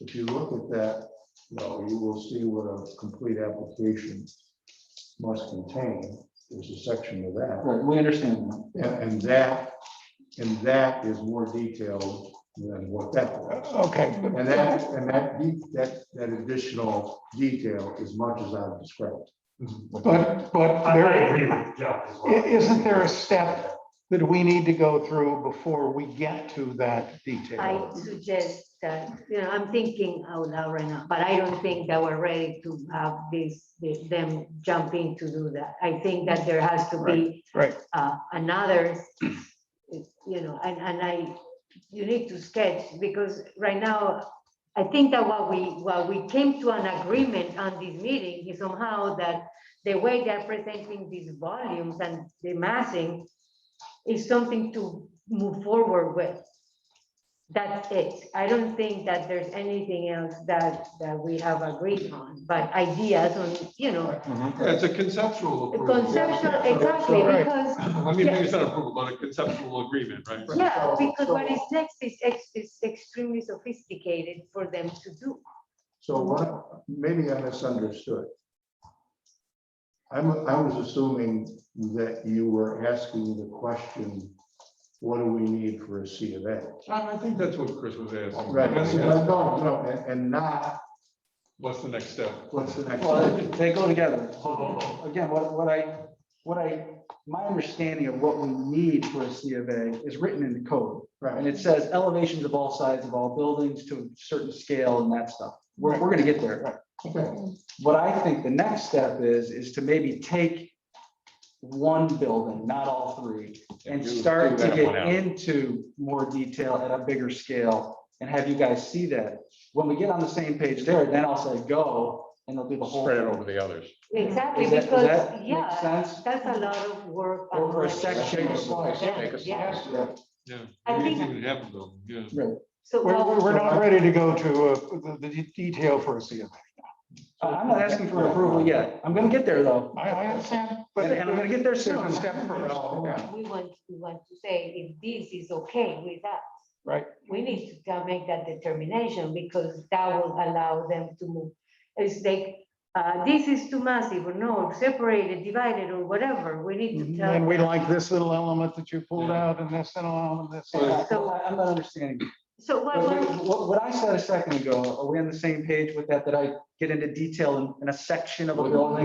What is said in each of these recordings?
if you look at that, though, you will see what a complete application must contain. There's a section of that. Right, we understand that. And- And that, and that is more detailed than what that was. Okay. And that, and that, de- that, that additional detail is much as I've described. But, but I I there, agree with Jeff as well. i- isn't there a step that we need to go through before we get to that I detail? suggest that, you know, I'm thinking out loud right now, but I don't think that we're ready to have this, the- them jumping to do that. I think that there has to be. Right, right. uh, Another, you know, and, and I, you need to sketch, because right now, I think that what we, what we came to an agreement on this meeting is somehow that the way they're presenting these volumes and the massing is something to move forward with. That's it. I don't think that there's anything else that, that we have agreed on, but ideas on, you know, Mm-hmm. Yeah, It's a conceptual approval. conceptual, exactly, Right. because, I mean, maybe it's not approval, but a conceptual agreement, right? yeah, because what is next is, ex- is extremely sophisticated for them to do. So what, maybe I misunderstood. I'm, I was assuming that you were asking the question, what do we need for a C of A? I I think that's what Chris was asking. Right, That's- no, no, no, and- and not, What's the next step? what's the next? Well, they go together. Hold on, hold Again, what, what I, what I, my understanding of what we need for a C of A is written in the code. And Right, it says elevations of all sides of all buildings to a certain scale and that stuff. We're, we're gonna get there. okay. What I think the next step is, is to maybe take one building, not all three, and You start to figure that one get out. into more detail at a bigger scale and have you guys see that. When we get on the same page there, then I'll say go and they'll do the whole. Spread it thing. over the others. Mm-hmm. Exactly, Does that- does that because, make yeah, sense? that's a lot of work. on Over a one section. end. Make a Yeah. Yeah. I We think- didn't even have them, yeah. So. We're, what- we're we're not ready to go to uh, the, the detail for a CFA. I- Uh, I'm not asking for approval yet. I'm gonna get there though. I, I understand, but. And and I'm gonna get there There's soon. a step first. We want, we want to say if this is okay with us. Right. We need to go make that determination because that will allow them to move. It's like, uh, this is too massive or no, separated, divided or whatever. We need to tell. Mm-hmm. And we them. like this little element that you pulled out and this little element, this. So I- so I- I'm not understanding. So what, what- What, what I said a second ago, are we on the same page with that, that I get into detail in, in a section of a building?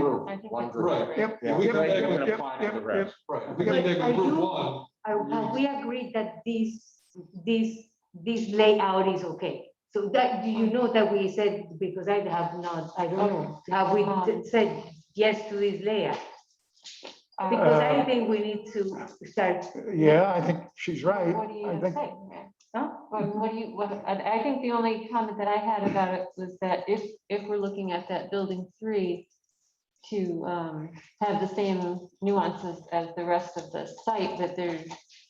Right. Yep. If we come back yep, and yep, apply yep, to the yep. rest. Right, if we come But back are and approve you- one, are- have we agreed that this, this, this layout is okay? So that, do you know that we said, because I have not, I don't know, have we Uh-huh. said yes to this layout? Because I Uh, think we need to start, Yeah, I think she's right. What do I you think, say? huh? What what do you, what, I I think the only comment that I had about it was that if, if we're looking at that building three to um, have the same nuances as the rest of the site, that there,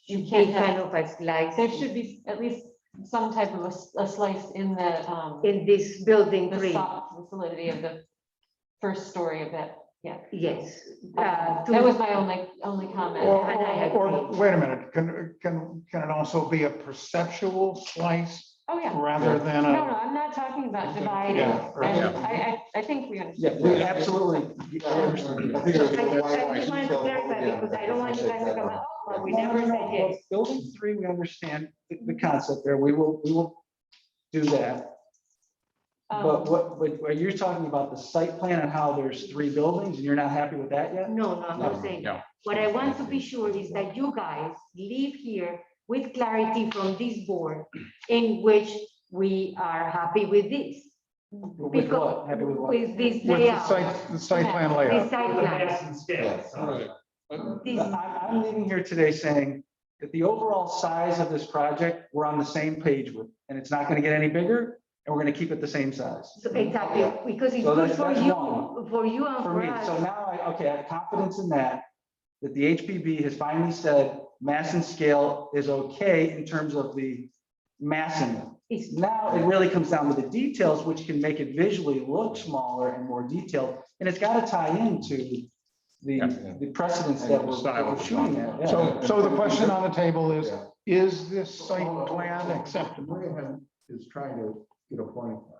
you can't kind have, of a slice there should be at least some type of a s- a slice in the, um, in this building the three, so- solidity of the first story of that. yes. uh, That to- was my only, only or, comment. And I or, agree. or, wait a minute, can, can, can it also be a perceptual slice Oh, yeah. rather than No, no, a? I'm not talking about dividing. Yeah, right. And I, I, I think we understand. Yeah, we absolutely. I understand. I just I just wanted to clarify because I don't want you guys to come out, but we never said yes. Building three, we understand the, the concept there. We will, we will do that. Um, But what, but are you talking about the site plan and how there's three buildings and you're not happy with that yet? No, no, I'm not saying no. that. What I want to be sure is that you guys leave here with clarity from this board in which we are happy with this. With what? Happy with what? With this With the layout, site, the site plan this layout. on. site The plan. mass and scale, all so. right. Uh, This- I'm, I'm leaving here today saying that the overall size of this project, we're on the same page with, and it's not gonna get any bigger, and we're gonna keep it the same size. so Exactly, because it's So good that's- for that's you, one. for you and For for me, us. so now I, okay, I have confidence in that, that the HPB has finally said mass and scale is okay in terms of the massing. It's Now it really comes down to the details, which can make it visually look smaller and more detailed, and it's gotta tie into the, the precedents that we're that we're shooting at. yeah. So, so the question on the table is, is this site plan acceptable? Moynihan is trying to get a point.